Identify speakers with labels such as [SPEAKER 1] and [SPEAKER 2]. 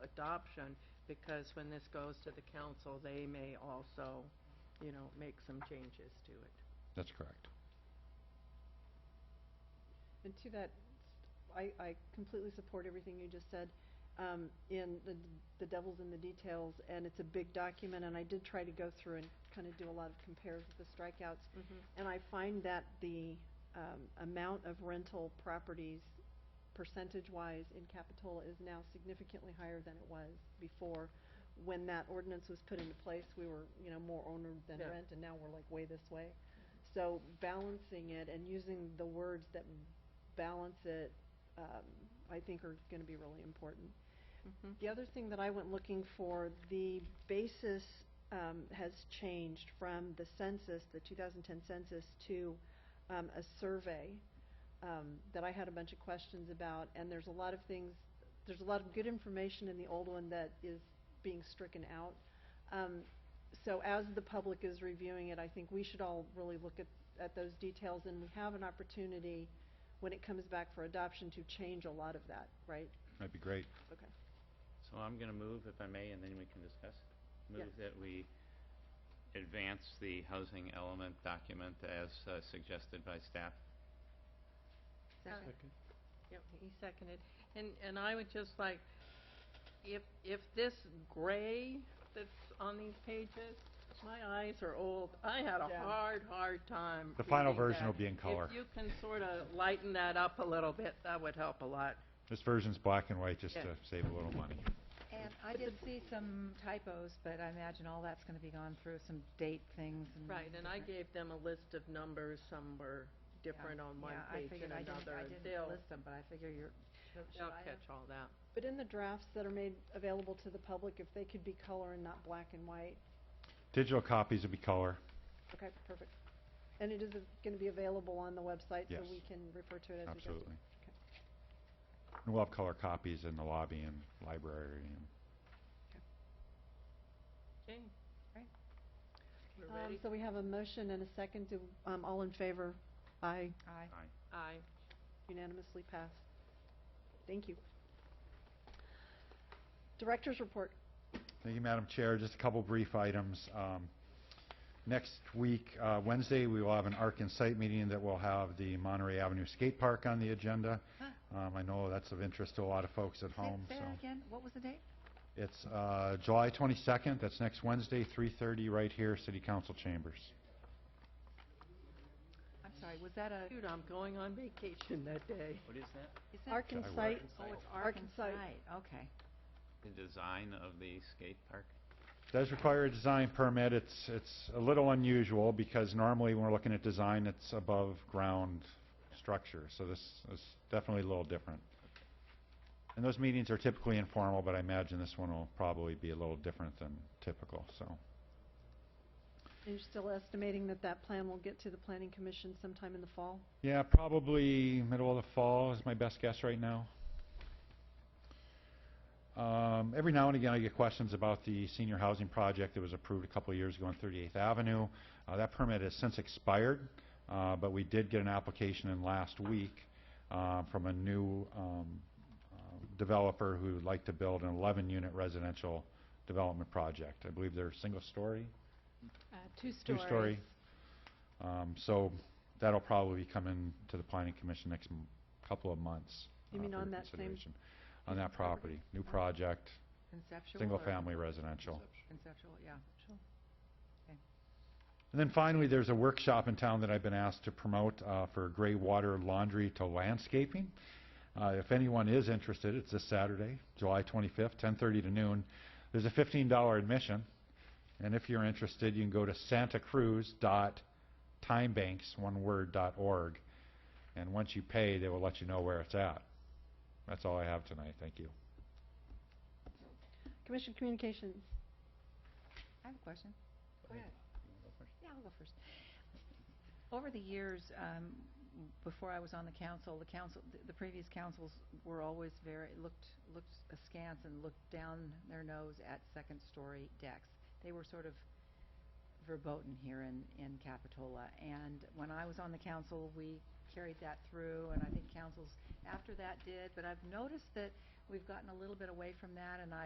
[SPEAKER 1] adoption, because when this goes to the council, they may also, you know, make some changes to it.
[SPEAKER 2] That's correct.
[SPEAKER 3] And to that, I, I completely support everything you just said, um, in the, the devil's in the details, and it's a big document, and I did try to go through and kind of do a lot of compares with the strikeouts,
[SPEAKER 1] Mm-hmm,
[SPEAKER 3] and I find that the, um, amount of rental properties percentage-wise in Capitola is now significantly higher than it was before. When that ordinance was put into place, we were, you know, more owner than
[SPEAKER 1] Yeah.
[SPEAKER 3] rent, and now we're like way this way. So balancing it and using the words that balance it, um, I think are gonna be really important.
[SPEAKER 1] Mhm.
[SPEAKER 3] The other thing that I went looking for, the basis um, has changed from the census, the 2010 census, to um, a survey um, that I had a bunch of questions about, and there's a lot of things, there's a lot of good information in the old one that is being stricken out. Um, So as the public is reviewing it, I think we should all really look at, at those details, and we have an opportunity, when it comes back for adoption, to change a lot of that, right?
[SPEAKER 2] That'd be great.
[SPEAKER 3] Okay.
[SPEAKER 4] So I'm going to move, if I may, and then we can discuss. Move that we advance the housing element document as uh, suggested by staff.
[SPEAKER 1] Second. Uh, Yep, he seconded. And, and I would just like, if, if this gray that's on these pages, my eyes are old. I had a
[SPEAKER 3] Yeah.
[SPEAKER 1] hard, hard time.
[SPEAKER 2] The final
[SPEAKER 1] reading
[SPEAKER 2] version
[SPEAKER 1] that.
[SPEAKER 2] will be in color.
[SPEAKER 1] If you can sort of lighten that up a little bit, that would help a lot.
[SPEAKER 2] This version's black and white just
[SPEAKER 1] Yeah.
[SPEAKER 2] to save a little money.
[SPEAKER 5] And I did see some typos, but I imagine all that's going to be gone through, some date things and...
[SPEAKER 1] Right, and I
[SPEAKER 5] different-
[SPEAKER 1] gave them a list of numbers, some were different on one
[SPEAKER 5] Yeah, I
[SPEAKER 1] page
[SPEAKER 5] figured
[SPEAKER 1] and
[SPEAKER 5] I didn't-
[SPEAKER 1] another. and
[SPEAKER 5] I didn't
[SPEAKER 1] they'll-
[SPEAKER 5] list them, but I figure you're... should
[SPEAKER 1] They'll
[SPEAKER 5] I have-
[SPEAKER 1] catch all that.
[SPEAKER 3] But in the drafts that are made available to the public, if they could be color and not black and white,
[SPEAKER 2] Digital copies will be color.
[SPEAKER 3] okay, perfect. And it is a- gonna be available on the website,
[SPEAKER 2] Yes.
[SPEAKER 3] so we can refer to it as we go through.
[SPEAKER 2] Absolutely. And we'll have color copies in the lobby and library and
[SPEAKER 1] Okay.
[SPEAKER 5] Right.
[SPEAKER 1] We're
[SPEAKER 3] Um,
[SPEAKER 1] ready?
[SPEAKER 3] so we have a motion and a second, do, um, all in favor? Aye,
[SPEAKER 5] Aye.
[SPEAKER 1] Aye.
[SPEAKER 3] unanimously passed. Thank you. Director's report.
[SPEAKER 2] Thank you, Madam Chair. Just a couple brief items. Um, Next week, uh, Wednesday, we will have an ARC and Site meeting that will have the Monterey Avenue Skate Park on the agenda. Um, I know that's of interest to a lot of folks at
[SPEAKER 5] Say-
[SPEAKER 2] home, so.
[SPEAKER 5] Say that again, what was the date?
[SPEAKER 2] It's uh, July 22nd, that's next Wednesday, 3:30, right here, City Council Chambers.
[SPEAKER 5] I'm sorry, was that a...
[SPEAKER 1] Dude, I'm going on vacation that day.
[SPEAKER 4] What is that?
[SPEAKER 5] is that-
[SPEAKER 3] Arc and
[SPEAKER 2] Shall I
[SPEAKER 3] site,
[SPEAKER 5] Oh, it's
[SPEAKER 3] Arkansas.
[SPEAKER 5] Arkansas, okay.
[SPEAKER 4] The design of the skate park?
[SPEAKER 2] Does require a design permit, it's, it's a little unusual, because normally when we're looking at design, it's above-ground structure, so this is definitely a little different. And those meetings are typically informal, but I imagine this one will probably be a little different than typical, so.
[SPEAKER 3] and you're still estimating that that plan will get to the planning commission sometime in the fall?
[SPEAKER 2] Yeah, probably middle of the fall is my best guess right now. Um, every now and again, I get questions about the senior housing project that was approved a couple of years ago on 38th Avenue. Uh, that permit has since expired, uh, but we did get an application in last week uh, from a new um, uh, developer who would like to build an 11-unit residential development project. I believe they're single-story,
[SPEAKER 3] two
[SPEAKER 2] two-story. Um, so that'll probably come in to the planning commission next m- couple of months.
[SPEAKER 3] You
[SPEAKER 2] uh,
[SPEAKER 3] mean
[SPEAKER 2] for
[SPEAKER 3] on that same-
[SPEAKER 2] consideration. On that
[SPEAKER 5] property?
[SPEAKER 2] property, new project,
[SPEAKER 5] Conceptual or-
[SPEAKER 2] single-family residential.
[SPEAKER 5] Conceptual, yeah.
[SPEAKER 2] And then finally, there's a workshop in town that I've been asked to promote uh, for gray water laundry to landscaping. Uh, If anyone is interested, it's this Saturday, July 25th, 10:30 to noon. There's a $15 admission, and if you're interested, you can go to santacruz.timebanks, one word, dot org, and once you pay, they will let you know where it's at. That's all I have tonight, thank you.
[SPEAKER 3] Commission communications.
[SPEAKER 5] I have a question. Go ahead.
[SPEAKER 4] You wanna go first?
[SPEAKER 5] Yeah, I'll go first. Over the years, um, before I was on the council, the council, th- the previous councils were always very, looked, looked askance and looked down their nose at second-story decks. They were sort of verboten here in, in Capitola. And when I was on the council, we carried that through, and I think councils after that did. But I've noticed that we've gotten a little bit away from that, and I.